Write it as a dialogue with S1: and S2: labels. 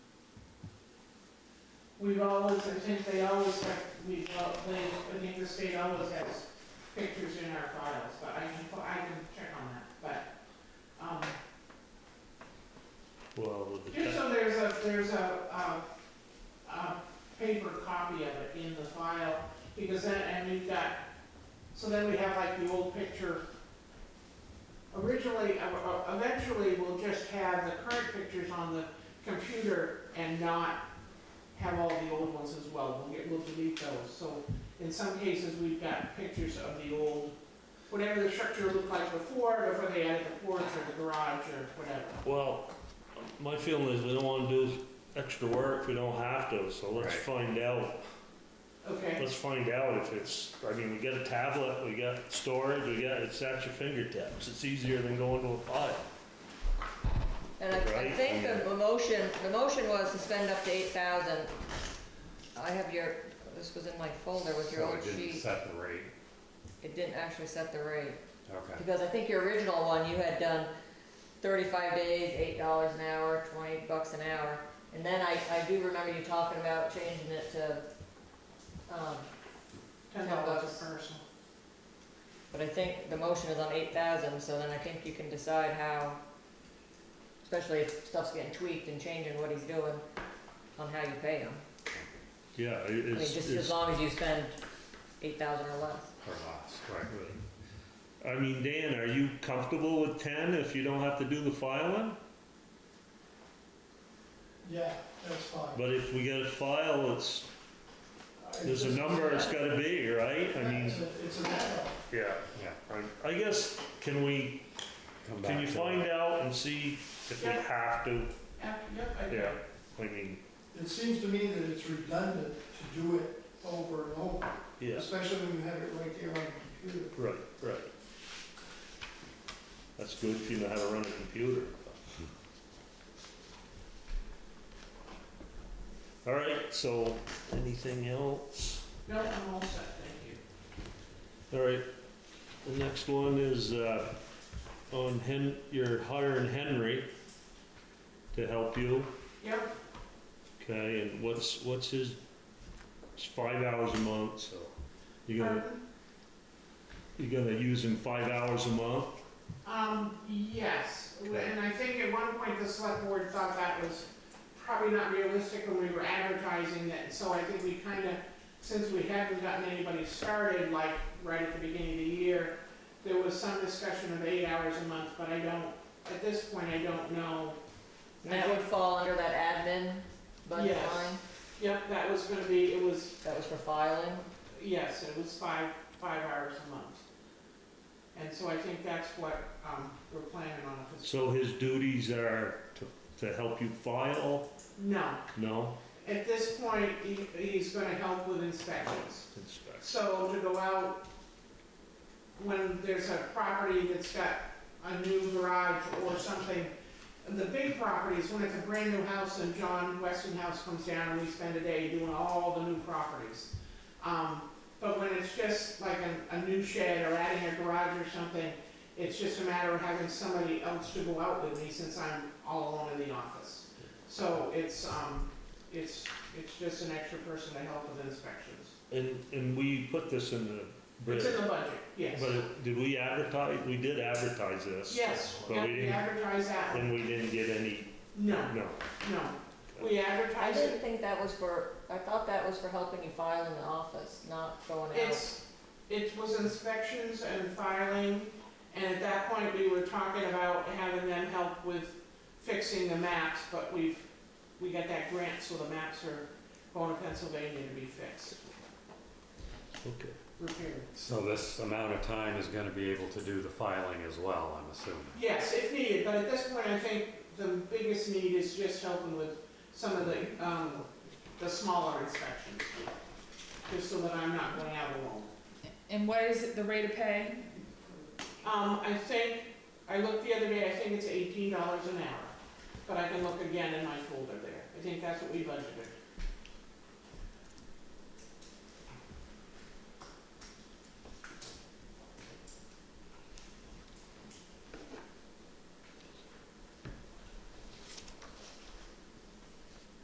S1: We've always, I think they always have, we've, al- they, I think the state always has pictures in our files, but I can, I can check on that, but, um,
S2: Well, with the
S1: Just
S2: tax,
S1: so there's a, there's a, um, a paper copy of it in the file, because then, and we've got, so then we have like the old picture. Originally, uh, uh, eventually, we'll just have the current pictures on the computer and not have all the old ones as well, we'll get, we'll delete those, so in some cases, we've got pictures of the old, whatever the structure looked like before, before they added the porch or the garage or whatever.
S2: well, my feeling is we don't wanna do extra work, if we don't have to, so let's
S3: Right.
S2: find out,
S1: Okay?
S2: let's find out if it's, I mean, we got a tablet, we got storage, we got, it's at your fingertips, it's easier than going to a file.
S4: And I, I
S2: Right,
S4: think
S2: and-
S4: the the motion, the motion was to spend up to eight thousand. I have your, this was in my folder with your
S3: So
S4: old
S3: it didn't
S4: sheet.
S3: set the rate,
S4: It didn't actually set the rate,
S3: okay.
S4: because I think your original one, you had done thirty-five days, eight dollars an hour, twenty bucks an hour. And then I, I do remember you talking about changing it to, um,
S1: Ten dollars a person.
S4: But I think the motion is on eight thousand, so then I think you can decide how, especially if stuff's getting tweaked and changing what he's doing, on how you pay him.
S2: Yeah, it-
S4: I mean,
S2: it's,
S4: just as
S2: it's,
S4: long as you spend eight thousand or less.
S3: Or less, right.
S2: right. I mean, Dan, are you comfortable with ten if you don't have to do the filing?
S5: Yeah, that's fine.
S2: But if we get a file, it's,
S5: I-
S2: there's a number it's gotta be, right? I mean,
S5: It's a- it's a matter.
S2: yeah,
S3: Yeah.
S2: I- I guess, can we
S3: Come
S2: Can
S3: back
S2: you
S3: to
S2: find
S3: it.
S2: out and see if we
S1: Yeah.
S2: have to?
S1: Yeah, yep, I
S2: Yeah, I mean,
S5: It seems to me that it's redundant to do it over and over,
S2: yeah,
S5: especially when you have it right there on the computer.
S2: right, right. That's good if you know how to run a computer. All right, so anything else?
S1: No, I'm all set, thank you.
S2: All right, the next one is, uh, on Hen, you're hiring Henry to help you,
S1: Yep,
S2: okay, and what's, what's his, it's five hours a month, so you're gonna
S1: pardon?
S2: You're gonna use him five hours a month?
S1: Um, yes,
S2: Okay.
S1: and I think at one point the select board thought that was probably not realistic when we were advertising it, so I think we kind of, since we haven't gotten anybody started, like, right at the beginning of the year, there was some discussion of eight hours a month, but I don't, at this point, I don't know.
S4: And that would fall under that admin budget
S1: Yes.
S4: line,
S1: Yep, that was gonna be, it was
S4: that was for filing.
S1: Yes, it was five, five hours a month. And so I think that's what, um, we're planning on. if it's-
S2: So his duties are to, to help you file?
S1: No,
S2: No?
S1: at this point, he, he's gonna help with inspections.
S2: Inspect.
S1: So to go out, when there's a property that's got a new garage or something, the big properties, when it's a brand new house and John Westinghouse comes down and we spend a day doing all the new properties. Um, but when it's just like a, a new shed or adding a garage or something, it's just a matter of having somebody else to go out with me since I'm all alone in the office. So it's, um, it's, it's just an extra person to help with inspections.
S2: And, and we put this in the
S1: It's
S2: bid,
S1: in the budget, yes.
S2: but it- did we advertise, we did advertise this?
S1: Yes,
S2: But
S1: yeah,
S2: we
S1: we
S2: didn't,
S1: advertise that one.
S2: and we didn't get any,
S1: No,
S2: no.
S1: no. We
S4: I
S1: advertise
S4: didn't
S1: it.
S4: think that was for, I thought that was for helping you file in the office, not going out.
S1: It's, it was inspections and filing, and at that point, we were talking about having them help with fixing the maps, but we've, we got that grant, so the maps are going to Pennsylvania to be fixed,
S2: Okay.
S1: repaired.
S3: So this amount of time is gonna be able to do the filing as well, I'm assuming.
S1: Yes, if needed, but at this point, I think the biggest need is just helping with some of the, um, the smaller inspections, just so that I'm not going out alone.
S6: And what is it, the rate of pay?
S1: Um, I think, I looked the other day, I think it's eighteen dollars an hour, but I can look again in my folder there. I think that's what we budgeted.